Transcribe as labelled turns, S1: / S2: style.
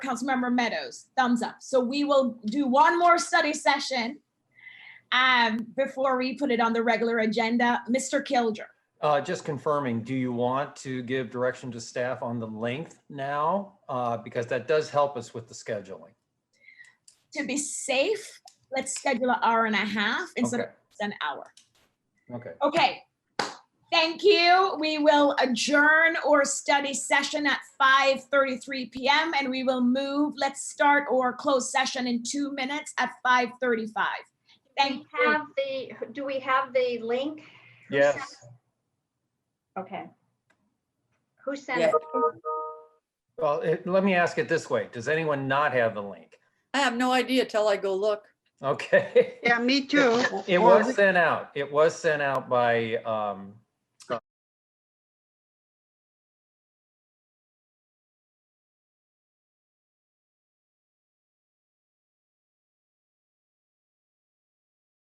S1: Councilmember Meadows, thumbs up. So we will do one more study session um, before we put it on the regular agenda. Mr. Kilger,
S2: Uh, just confirming, do you want to give direction to staff on the length now? Uh, because that does help us with the scheduling.
S1: to be safe, let's schedule an hour and a half instead of
S2: Okay,
S1: an hour.
S2: okay.
S1: Okay. Thank you. We will adjourn or study session at 5:33 PM and we will move, let's start or close session in two minutes at 5:35. Thank
S3: We
S1: you.
S3: have the, do we have the link?
S2: Yes,
S3: Okay. Who sent
S4: Yeah.
S3: it?
S2: well, it- let me ask it this way. Does anyone not have the link?
S4: I have no idea till I go look.
S2: Okay.
S5: Yeah, me too.
S2: It
S5: Or
S2: was sent out. It was sent out by um,